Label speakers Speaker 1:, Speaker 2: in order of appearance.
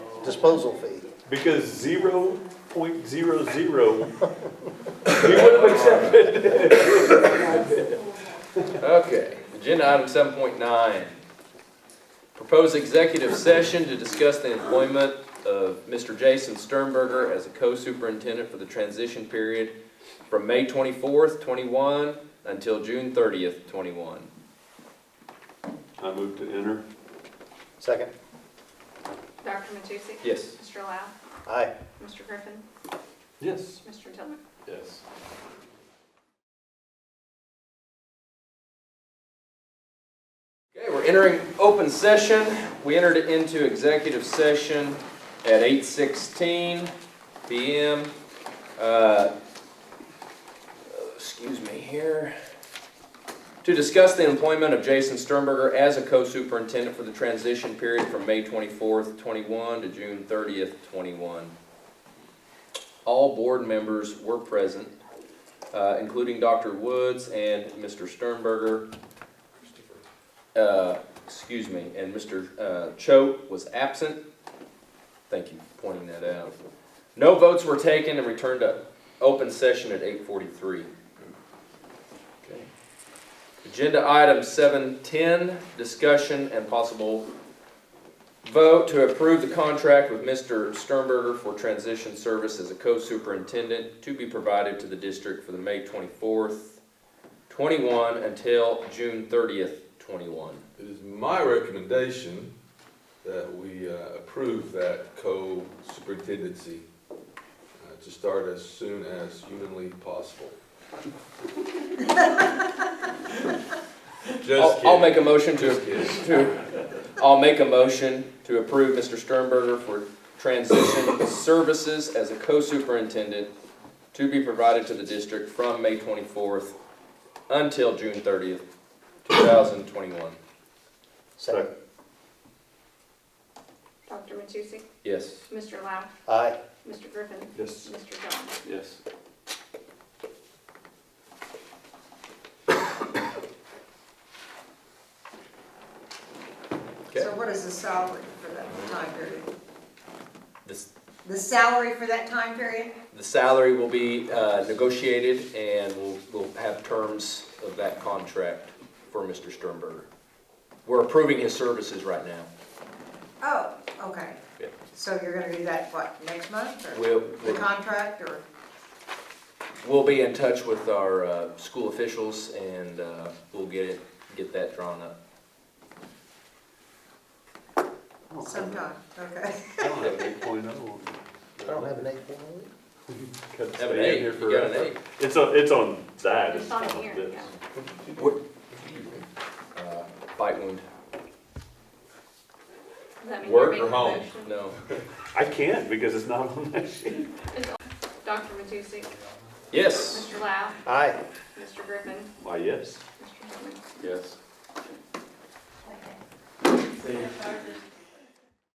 Speaker 1: disposal fee.
Speaker 2: Because zero point zero zero, we would have accepted.
Speaker 3: Okay, agenda item seven point nine. Proposed executive session to discuss the employment of Mr. Jason Sternberger as a co-superintendent for the transition period from May twenty-fourth, twenty-one until June thirtieth, twenty-one.
Speaker 2: I move to enter.
Speaker 1: Second,
Speaker 4: Dr. Matusek?
Speaker 3: Yes.
Speaker 4: Mr. Lau?
Speaker 1: aye.
Speaker 4: Mr. Griffin?
Speaker 2: Yes.
Speaker 4: Mr. Tillman?
Speaker 2: Yes.
Speaker 3: Okay, we're entering open session. We entered into executive session at eight sixteen PM. Uh, Excuse me here. To discuss the employment of Jason Sternberger as a co-superintendent for the transition period from May twenty-fourth, twenty-one to June thirtieth, twenty-one. All board members were present, uh, including Dr. Woods and Mr. Sternberger. Uh, excuse me, and Mr. uh, Choate was absent. Thank you for pointing that out. No votes were taken and returned to open session at eight forty-three. Okay. Agenda item seven ten, discussion and possible vote to approve the contract with Mr. Sternberger for transition service as a co-superintendent to be provided to the district for the May twenty-fourth, twenty-one until June thirtieth, twenty-one.
Speaker 5: It is my recommendation that we uh, approve that co-superintendency uh, to start as soon as humanly possible. Just
Speaker 3: I'll, I'll make a motion
Speaker 5: Just
Speaker 3: to,
Speaker 5: kidding.
Speaker 3: to, I'll make a motion to approve Mr. Sternberger for transition services as a co-superintendent to be provided to the district from May twenty-fourth until June thirtieth, two thousand twenty-one.
Speaker 1: Second,
Speaker 4: Dr. Matusek?
Speaker 3: Yes.
Speaker 4: Mr. Lau?
Speaker 1: aye.
Speaker 4: Mr. Griffin?
Speaker 2: Yes.
Speaker 4: Mr. Tillman?
Speaker 2: Yes.
Speaker 3: Okay.
Speaker 6: So what is the salary for that time period?
Speaker 3: This,
Speaker 6: The salary for that time period?
Speaker 3: the salary will be, uh, negotiated and we'll, we'll have terms of that contract for Mr. Sternberger. We're approving his services right now.
Speaker 6: Oh, okay.
Speaker 3: Yeah.
Speaker 6: So you're gonna do that, what, next month or
Speaker 3: We'll,
Speaker 6: the
Speaker 3: we'll
Speaker 6: contract or?
Speaker 3: We'll be in touch with our uh, school officials and uh, we'll get it, get that drawn up.
Speaker 4: Oh,
Speaker 6: Sometime, okay.
Speaker 2: I don't have an eight point oh.
Speaker 1: I don't have an eight point oh.
Speaker 2: Could
Speaker 3: Have an
Speaker 2: stay in
Speaker 3: eight,
Speaker 2: here
Speaker 3: you got an
Speaker 2: forever.
Speaker 3: eight.
Speaker 2: It's on, it's on that.
Speaker 4: It's on
Speaker 2: not
Speaker 4: here,
Speaker 2: this.
Speaker 4: yeah.
Speaker 3: Uh, Bite wound,
Speaker 4: Does that mean
Speaker 3: Work
Speaker 4: you're
Speaker 3: or
Speaker 4: making a
Speaker 5: home?
Speaker 4: motion?
Speaker 3: no.
Speaker 2: I can't because it's not on that sheet.
Speaker 4: Dr. Matusek?
Speaker 3: Yes.
Speaker 4: Mr. Lau?
Speaker 1: Aye.
Speaker 4: Mr. Griffin?
Speaker 2: Why, yes.
Speaker 4: Mr. Tillman?
Speaker 3: Yes.